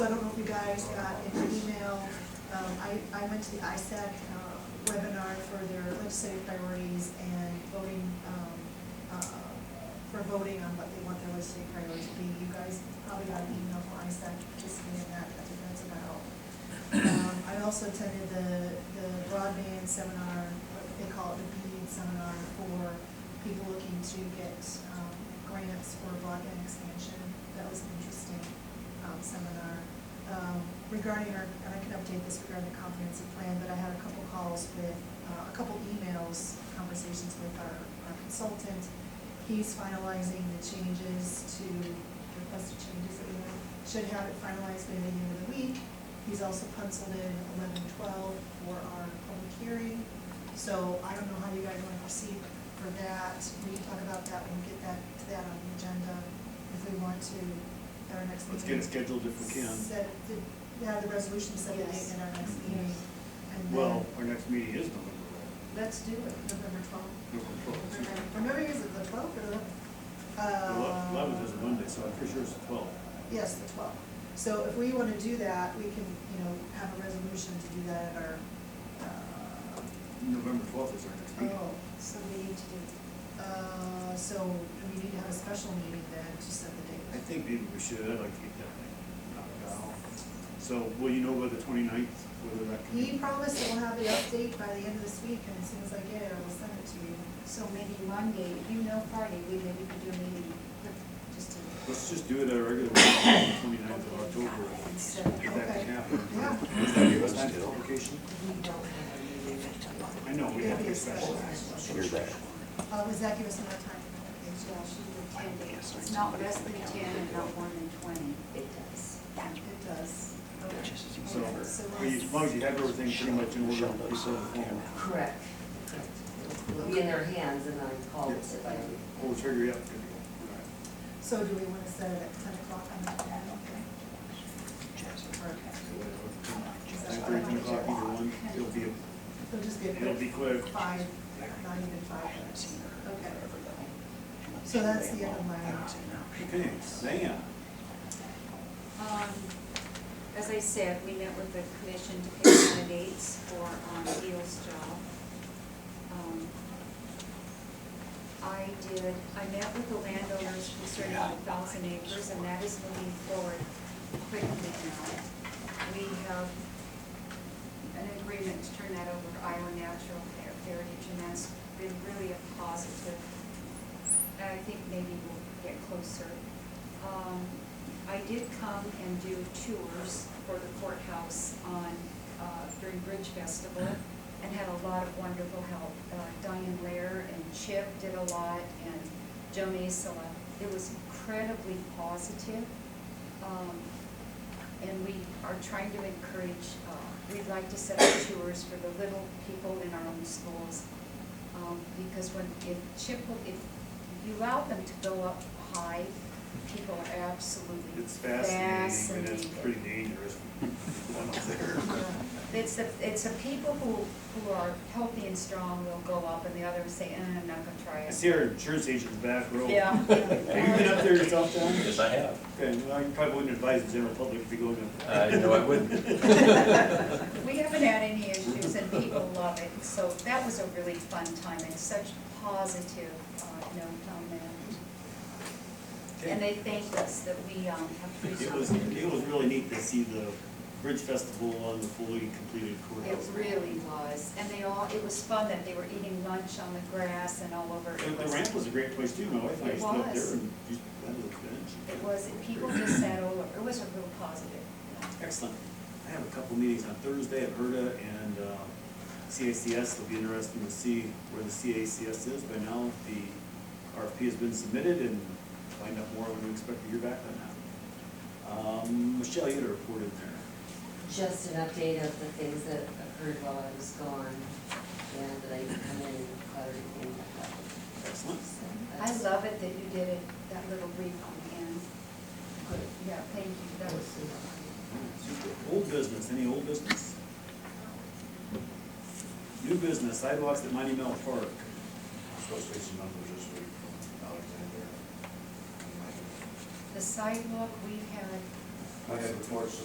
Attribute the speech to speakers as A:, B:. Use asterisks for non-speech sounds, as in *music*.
A: guys got an email, um, I, I went to the ISAC uh, webinar for their legislative priorities and voting, um, uh, for voting on what they want their legislative priorities to be. You guys probably got an email from ISAC participating in that, I think that's about. Um, I also attended the, the broadband seminar, what they call it the BEAD seminar for people looking to get, um, grants for broadband expansion. That was an interesting, um, seminar. Um, regarding our, and I can update this regarding the comprehensive plan, but I had a couple calls with, uh, a couple emails, conversations with our, our consultant. He's finalizing the changes to, the requested changes that we want. Should have it finalized by the end of the week. He's also penciled in eleven twelve for our public hearing. So I don't know how you guys want to proceed for that. We can talk about that, we'll get that, to that on the agenda if we want to, at our next meeting.
B: Let's get it scheduled if we can.
A: Set, the, yeah, the resolution set a date
C: Yes.
A: in our next meeting. and then-
B: Well, our next meeting is November
A: Let's do it, November twelfth.
B: twelfth.
A: Or maybe is it the twelfth or the?
B: Eleventh is a
A: Uh,
B: Monday, so I'm pretty sure it's the twelfth.
A: Yes, the twelfth. So if we want to do that, we can, you know, have a resolution to do that at our, uh,
B: November twelfth is our next meeting.
A: oh,
C: So we need to do,
A: uh, so we need to have a special meeting then to set the
B: I
A: date.
B: think maybe we should, I'd like to get that thing knocked out. So will you know by the twenty-ninth whether that can
A: He
B: be?
A: promised that we'll have the update by the end of this week, and as soon as I get it, I will send it to you.
C: so maybe Monday, you know Friday, we maybe could do a meeting, just to.
B: Let's just do it at a regular meeting, twenty-ninth of October.
C: Instead of-
B: If that
A: Okay.
B: can happen.
A: Yeah.
B: Does that give us time for publication?
D: We don't have a meeting until
B: I know, we
A: It'll
B: have
A: be a
B: to
A: special.
B: special.
E: Hear that.
A: Uh, does that give us enough time? for
C: Yeah,
A: publication?
C: she did ten days, it's not less than ten and not more than twenty. It does.
A: It does.
E: Which is
B: So,
E: easier.
B: well, you- as long as you have everything pretty much in order before the form.
D: Correct. It'll be in their hands and then call us if I.
B: We'll figure it out. All
A: So do we want to set it at ten o'clock on the ten? Or-
B: right. After eight o'clock, either one, it'll be,
A: It'll just be a
B: it'll be
A: quick
B: quick.
A: five, not even five minutes. Okay. So that's the end of my.
B: Okay, Diane,
F: Um, As I said, we met with the commission to pick candidates for um, Beal's job. Um, I did, I met with the landowners concerning the thousand acres, and that is moving forward quickly now. We have an agreement to turn that over to Iowa Natural Heritage, and that's been really a positive and I think maybe we'll get closer. Um, I did come and do tours for the courthouse on, uh, during Bridge Festival and had a lot of wonderful help. Uh, Diane Lair and Chip did a lot and Joe Masela. It was incredibly positive. Um, and we are trying to encourage, uh, we'd like to set up tours for the little people in our own schools. Um, because when, if chip, if you allow them to go up high, people are absolutely
B: it's fascinating, but it's
F: fascinated.
B: pretty dangerous. One up there.
F: *laughs* It's the, it's the people who, who are healthy and strong will go up and the others say, eh, I'm not gonna try
B: I
F: it.
B: see our insurance agent's back row. *laughs*
F: Yeah.
B: Have you been up there yourself, Don?
E: Yes, I have.
B: Okay, well, you probably wouldn't advise the general public to be going
E: *laughs*
B: up there.
E: I know I wouldn't.
F: We haven't had any issues and people love it, so that was a really fun time and such positive, uh, note on that. And they thanked us that we, um, have to do
B: *laughs* It was,
F: something.
B: it was really neat to see the Bridge Festival on the fully completed
F: It
B: courthouse.
F: really was, and they all, it was fun that they were eating lunch on the grass and all over.
B: The
F: It
B: the
F: was-
B: ramp was a great place too, my wife and I
F: It
B: stood up
F: was.
B: there and just, that was good.
F: It was, people just sat over, it was a real positive.
B: Excellent. I have a couple meetings on Thursday at HERDA and uh, CACS. It'll be interesting to see where the CACS is. By now, the RFP has been submitted and find out more when we expect to hear back on that. Um, Michelle, you had a report in there.
D: Just an update of the things that occurred while I was gone, and that I can come in and clear everything back up.
B: Excellent.
D: So
F: I
D: that's
F: love it that you did it, that little brief on the end. Good, yeah, thank you, that was,
B: Super. Old business, any old business? New business, sidewalks at Mighty Mill Park.
G: Supposed to be some numbers this week from Alexander.
F: the sidewalk, we had
G: I had reports